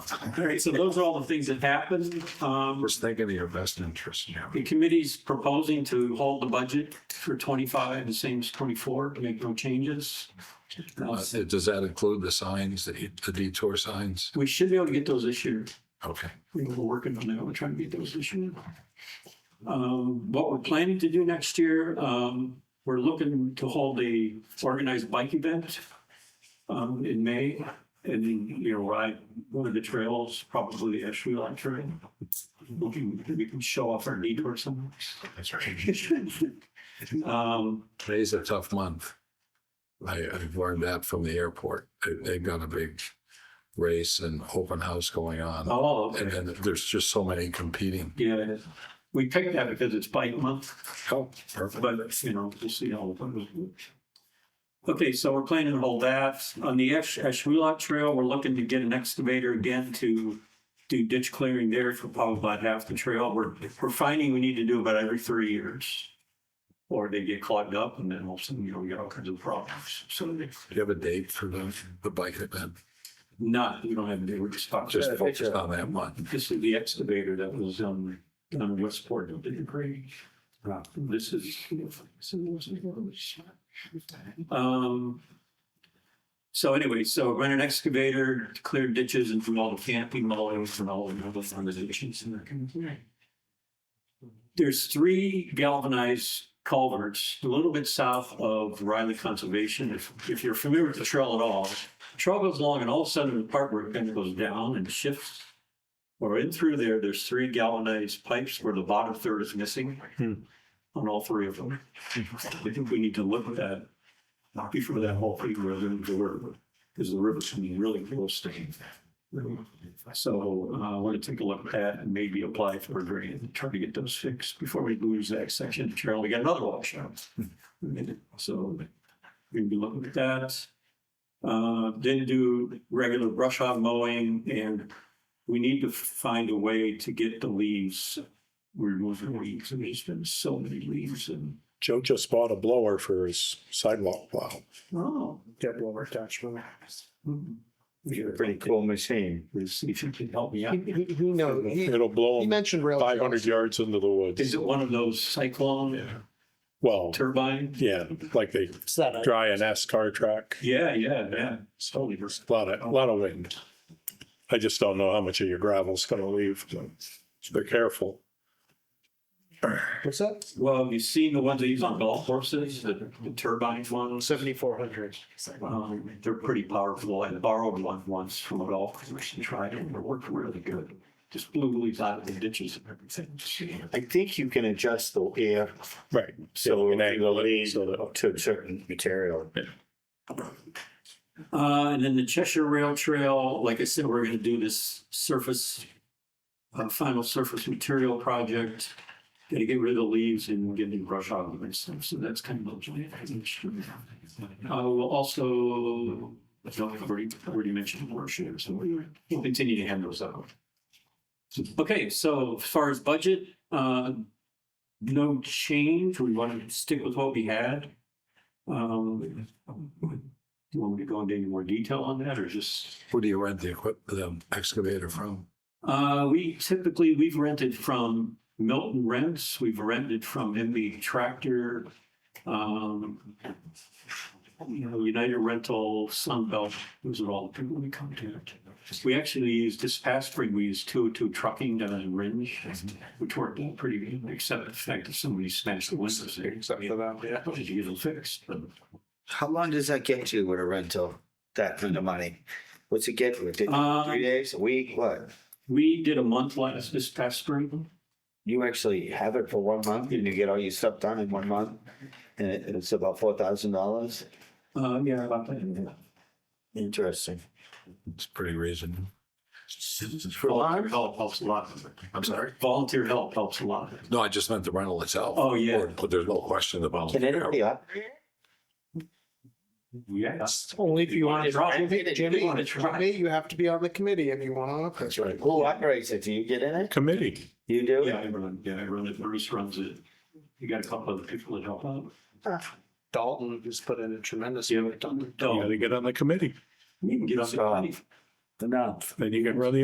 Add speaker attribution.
Speaker 1: Great, so those are all the things that happened. Um,
Speaker 2: Just think of your best interest, yeah.
Speaker 1: The committee's proposing to hold the budget for 25, the same as 24, make no changes. Uh,
Speaker 2: Uh, Does that include the signs, the the detour signs?
Speaker 1: We should be able to get those this year.
Speaker 2: Okay.
Speaker 1: We were working on that, we're trying to get those this year. Um, What we're planning to do next year, um, we're looking to hold a organized bike event um, in May. And then, you know, ride one of the trails, probably the Ashwellet Trail. We can- we can show off our detour somewhere.
Speaker 2: That's right.
Speaker 1: Um,
Speaker 2: May's a tough month. I, I've learned that from the airport. They- They've got a big race and open house going on.
Speaker 1: Oh, okay.
Speaker 2: And then there's just so many competing.
Speaker 1: Yeah, it is. We picked that because it's bike month,
Speaker 2: Oh, perfect.
Speaker 1: but you know, we'll see how. it goes. Okay, so we're planning to hold that. On the Ash, Ashwelot Trail, we're looking to get an excavator again to do ditch clearing there for probably about half the trail. We're, we're finding we need to do about every three years. Or they get clogged up and then all of a sudden, you know, we got all kinds of problems. So
Speaker 2: Do you have a date for the, the bike event?
Speaker 1: not, we don't have, to. we're just talking.
Speaker 2: Just focus on that one.
Speaker 1: This is the excavator that was on, on Westport, did it break? This is. Um. So anyway, so rent an excavator, to clear ditches and do all the camping, mowing, and all the other foundations in there. There's three galvanized culverts, a little bit south of Riley Conservation. If, if you're familiar with the trail at all, the trail goes along and all of a sudden the part where it kind of goes down and shifts. Or in through there, there's three galvanized pipes where the bottom third is missing
Speaker 2: Hmm.
Speaker 1: on all three of them. I think we need to look at that, not before that whole thing rather than the river, because the river's gonna be really close to. So uh, I want to take a look at that and maybe apply for a grant, and try to get those fixed before we lose that section of trail. We got another washout. So we'll be looking at that. Uh, Then do regular brush hog mowing and we need to find a way to get the leaves, remove the leaves. There's been so many leaves and.
Speaker 3: Joe just bought a blower for his sidewalk plow.
Speaker 1: Oh.
Speaker 4: Get blower attachment.
Speaker 1: Pretty
Speaker 4: Pretty cool machine.
Speaker 1: See if you can help me out.
Speaker 4: Who knows? Oh, He
Speaker 3: It'll blow
Speaker 4: he
Speaker 3: him
Speaker 4: mentioned rail.
Speaker 3: five hundred
Speaker 4: trails.
Speaker 3: yards into
Speaker 1: Is
Speaker 3: the woods.
Speaker 1: it one of those cyclone
Speaker 3: Yeah. Well,
Speaker 1: turbine?
Speaker 3: yeah, like they
Speaker 5: It's that I-
Speaker 3: dry an S car track.
Speaker 1: Yeah, yeah, yeah.
Speaker 3: So there's a lot of, a lot of wind. I just don't know how much of your gravel's gonna leave. so They're careful.
Speaker 5: What's that?
Speaker 1: Well, have you seen the ones they use on golf courses, the the turbine ones?
Speaker 5: Seventy-four hundred.
Speaker 1: Um, they're pretty powerful. I borrowed one once from a golf course and tried it and it worked really good. Just blew the leaves out of the ditches and everything.
Speaker 4: I think you can adjust the air
Speaker 3: Right.
Speaker 4: so
Speaker 3: Yeah,
Speaker 4: it will lead
Speaker 3: so that-
Speaker 4: to a certain material.
Speaker 1: Uh, and then the Cheshire Rail Trail, like I said, we're gonna do this surface, uh, final surface material project. Gotta get rid of the leaves and get new brush out of and stuff, so that's kind of. the plan. Uh, we'll also, I've already, I've already mentioned worship, so we'll continue to hand those out. Okay, so as far as budget, uh, no change, we want to stick with what we had. Um, do you want me to go into any more detail on that or just?
Speaker 2: Who do you rent the equip, the excavator from?
Speaker 1: Uh, we typically, we've rented from Milton Rents, we've rented from MB Tractor, um, you know, United Rental, Sunbelt, those are all the people we contact. We actually used, this past spring, we used two, two trucking down in Ringe, which worked out pretty good, except the fact that somebody smashed the windows there. Except for that, yeah. How did you get them fixed? But
Speaker 5: How long does that get you with a rental, that kind of money? What's it get you? Did-
Speaker 1: Um,
Speaker 5: Three days, a week, what?
Speaker 1: We did a month last, this past spring.
Speaker 5: You actually have it for one month and you get all your stuff done in one month? And it- it's about four thousand dollars?
Speaker 1: Uh, yeah, about that.
Speaker 5: Interesting.
Speaker 2: It's pretty reasonable.
Speaker 1: Volunteer help helps a lot.
Speaker 2: I'm sorry?
Speaker 1: Volunteer help helps a lot.
Speaker 2: No, I just meant the rental itself.
Speaker 1: Oh, yeah.
Speaker 2: Or- But there's no question about.
Speaker 5: Can anybody operate?
Speaker 1: Yes.
Speaker 4: Only if
Speaker 1: you wanna try.
Speaker 4: Jimmy,
Speaker 1: You wanna try.
Speaker 4: Jimmy, you have to be on the committee if you want to operate.
Speaker 2: right.
Speaker 5: Who operates it? Do you get in it?
Speaker 3: Committee.
Speaker 5: You do?
Speaker 1: Yeah, I run, yeah, I run it. Bruce runs it. You got a couple other people that help out.
Speaker 4: Dalton just put in a tremendous.
Speaker 1: Yeah,
Speaker 3: Oh.
Speaker 4: amount of time.
Speaker 3: You gotta
Speaker 1: Dalton,
Speaker 3: get on the committee.
Speaker 1: we can get on the.
Speaker 5: No.
Speaker 3: Then you can run the